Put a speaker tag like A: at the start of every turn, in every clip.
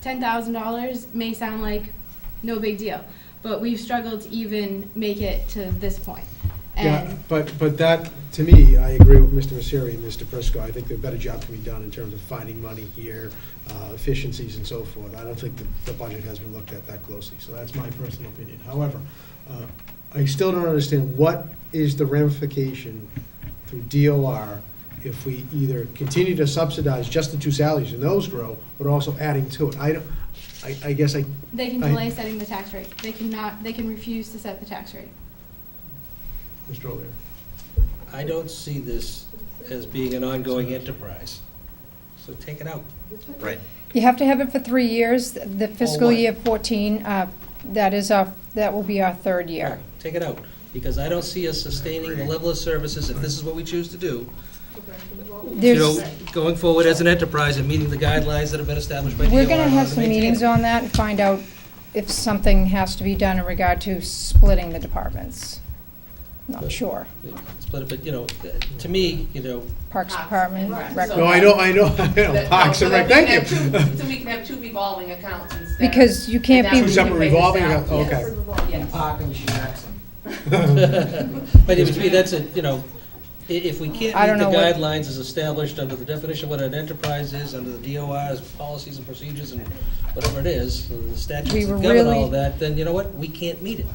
A: ten thousand dollars may sound like no big deal, but we've struggled to even make it to this point.
B: Yeah,
A: And
B: but, but that, to me, I agree with Mr. Messeri and Mr. Prisco. I think there's a better job can be done in terms of finding money here, uh, efficiencies and so forth. I don't think the, the budget has been looked at that closely, so that's my personal opinion. However, uh, I still don't understand what is the ramification through DOR if we either continue to subsidize just the two salaries and those grow, but also adding to it. I don't, I, I guess I,
A: they can
B: I-
A: delay setting the tax rate. They cannot, they can refuse to set the tax rate.
B: Mr. O'Leary.
C: I don't see this as being an ongoing enterprise, so take it out.
D: Right.
E: You have to have it for three years, the fiscal
C: Oh, what?
E: year 14, uh, that is our, that will be our third year.
C: Take it out, because I don't see us sustaining the level of services, if this is what we choose to do, you know,
E: There's,
C: going forward as an enterprise and meeting the guidelines that have been established by DOR.
E: we're gonna
C: in
E: have
C: order to
E: some
C: maintain
E: meetings
C: it.
E: on that and find out if something has to be done in regard to splitting the departments. Not sure.
C: Split it, but, you know, to me, you know,
E: Parks
F: Parks,
E: Department,
F: right.
E: Rec-
F: So-
B: No, I know, I know, I know,
F: Oh, That-
B: Parks and
F: no, so
B: Rec,
F: that we
B: thank
F: can have
B: you.
F: two- So we can have two revolving accounts instead.
E: because you
F: And
E: can't
F: that
E: be.
F: way we
B: Two separate
F: can phase
B: revolving
F: out,
B: account-
F: yes,
B: okay.
F: yes.
G: Park and she backs them.
C: but it would be, that's a, you know, i- if we can't
E: I don't
C: meet the
E: know what-
C: guidelines as established under the definition of what an enterprise is, under the DOR's policies and procedures and whatever it is, the
E: We
C: statutes
E: were
C: that govern all
E: really-
C: of that, then you know what, we can't meet it.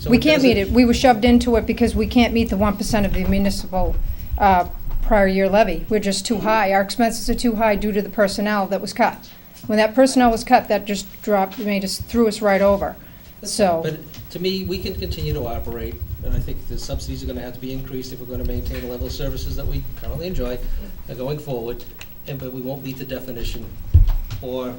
C: So
E: We can't meet
C: doesn't-
E: it. We were shoved into it because we can't meet the one percent of the municipal uh, prior year levy. We're just too high. Our expenses are too high due to the personnel that was cut. When that personnel was cut, that just dropped, I mean, just threw us right over. So,
C: But to me, we can continue to operate, and I think the subsidies are gonna have to be increased if we're gonna maintain the level of services that we currently enjoy uh, going forward, and, but we won't meet the definition, or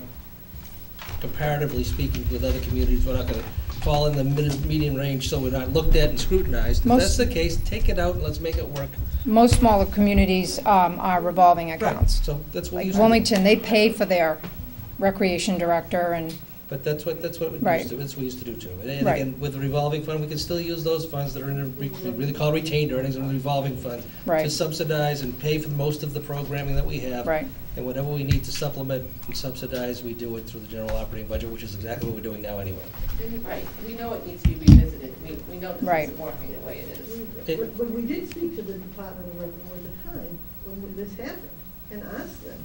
C: comparatively speaking with other communities, we're not gonna fall in the mid- median range, so we're not looked at and scrutinized. If that's
E: Most-
C: the case, take it out, and let's make it work.
E: most smaller communities um, are revolving accounts.
C: So that's what we
E: Like
C: used to do,
E: Wilmington, they pay for their recreation director and,
C: but that's what, that's what we
E: Right.
C: used to, that's what we used to do too. And- And
E: Right.
C: again, with the revolving fund, we can still use those funds that are in, a re- we really call retained earnings and revolving funds. to
E: right,
C: subsidize and pay for most of the programming that we have.
E: right.
C: And whatever we need to supplement and subsidize, we do it through the general operating budget, which is exactly what we're doing now anyway.
F: Right, we know it needs to be revisited, we, we know this
E: Right.
F: isn't working the way it is.
C: It-
H: When when we did speak to the Department of Revenue at the time, when we- this happened, and asked them,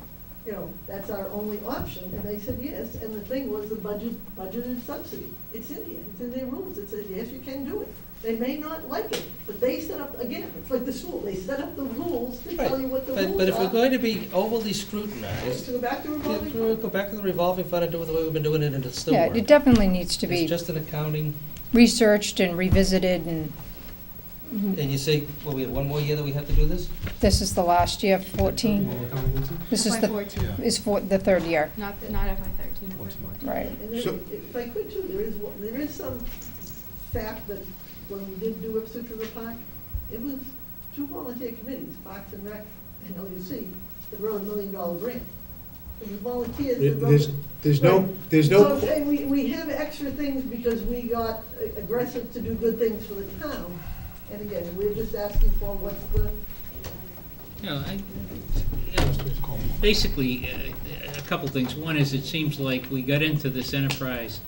H: you know, that's our only option, and they said yes, and the thing was the budget, budgeted subsidy. It's in here, it's in their rules, it says, yes, you can do it. They may not like it, but they set up, again, it's like the school, they set up the rules to tell you what the rules are.
C: But, but if we're going to be overly scrutinized,
H: To go back to
C: yeah,
H: revolving.
C: we'll go back to the revolving fund and do it the way we've been doing it, and it'll still
E: Yeah, it
C: work.
E: definitely needs to
C: It's
E: be
C: just an accounting,
E: researched and revisited and
C: and you say, well, we have one more year that we have to do this?
E: this is the last year, 14.
B: What we're coming into?
E: This is
A: FY
E: the
A: fourteen,
E: is for the third year,
A: not, not FY thirteen.
E: right.
H: And there-
B: So-
H: if I could too, there is, one- there is some fact that when we did do Ipswich River Park, it was two volunteer committees, Parks and Rec and LUC, that wrote a million dollar grant. It was volunteers
B: There-
H: that
B: There's,
H: wrote.
B: there's no,
H: Right.
B: there's
H: So
B: no,
H: I'm saying, we, we have extra things because we got aggressive to do good things for the town. And again, we're just asking for what's the,
D: No, I, basically, uh, a couple things. One is, it seems like we got into this enterprise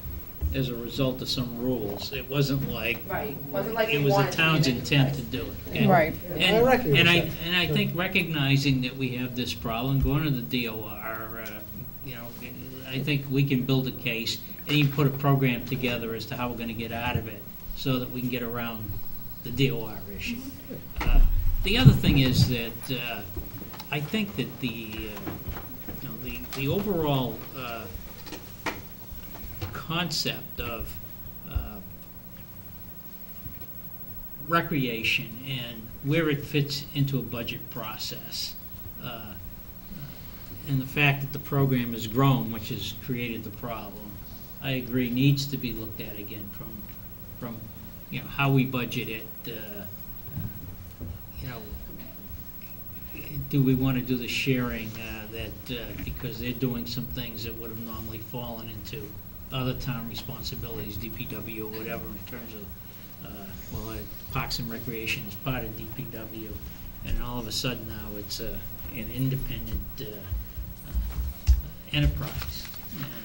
D: as a result of some rules. It wasn't like,
F: Right, wasn't like we
D: it was
F: wanted
D: the
F: to be
D: town's
F: an
D: intent to
F: enterprise.
D: do it. And-
E: Right,
B: I
D: And,
B: reckon
D: and I,
B: it's
D: and I think recognizing that we have this problem, going to the DOR, uh, you know, I think we can build a case and even put a program together as to how we're gonna get out of it, so that we can get around the DOR issue. Uh, The other thing is that, uh, I think that the, uh, you know, the, the overall, uh, concept of, uh, recreation and where it fits into a budget process. uh, And the fact that the program has grown, which has created the problem, I agree, needs to be looked at again from, from, you know, how we budget it, uh, uh, you know, do we want to do the sharing uh, that, uh, because they're doing some things that would have normally fallen into other town responsibilities, DPW or whatever, in terms of uh, well, uh, Parks and Recreation is part of DPW, and all of a sudden now it's uh, an independent uh, uh, enterprise. And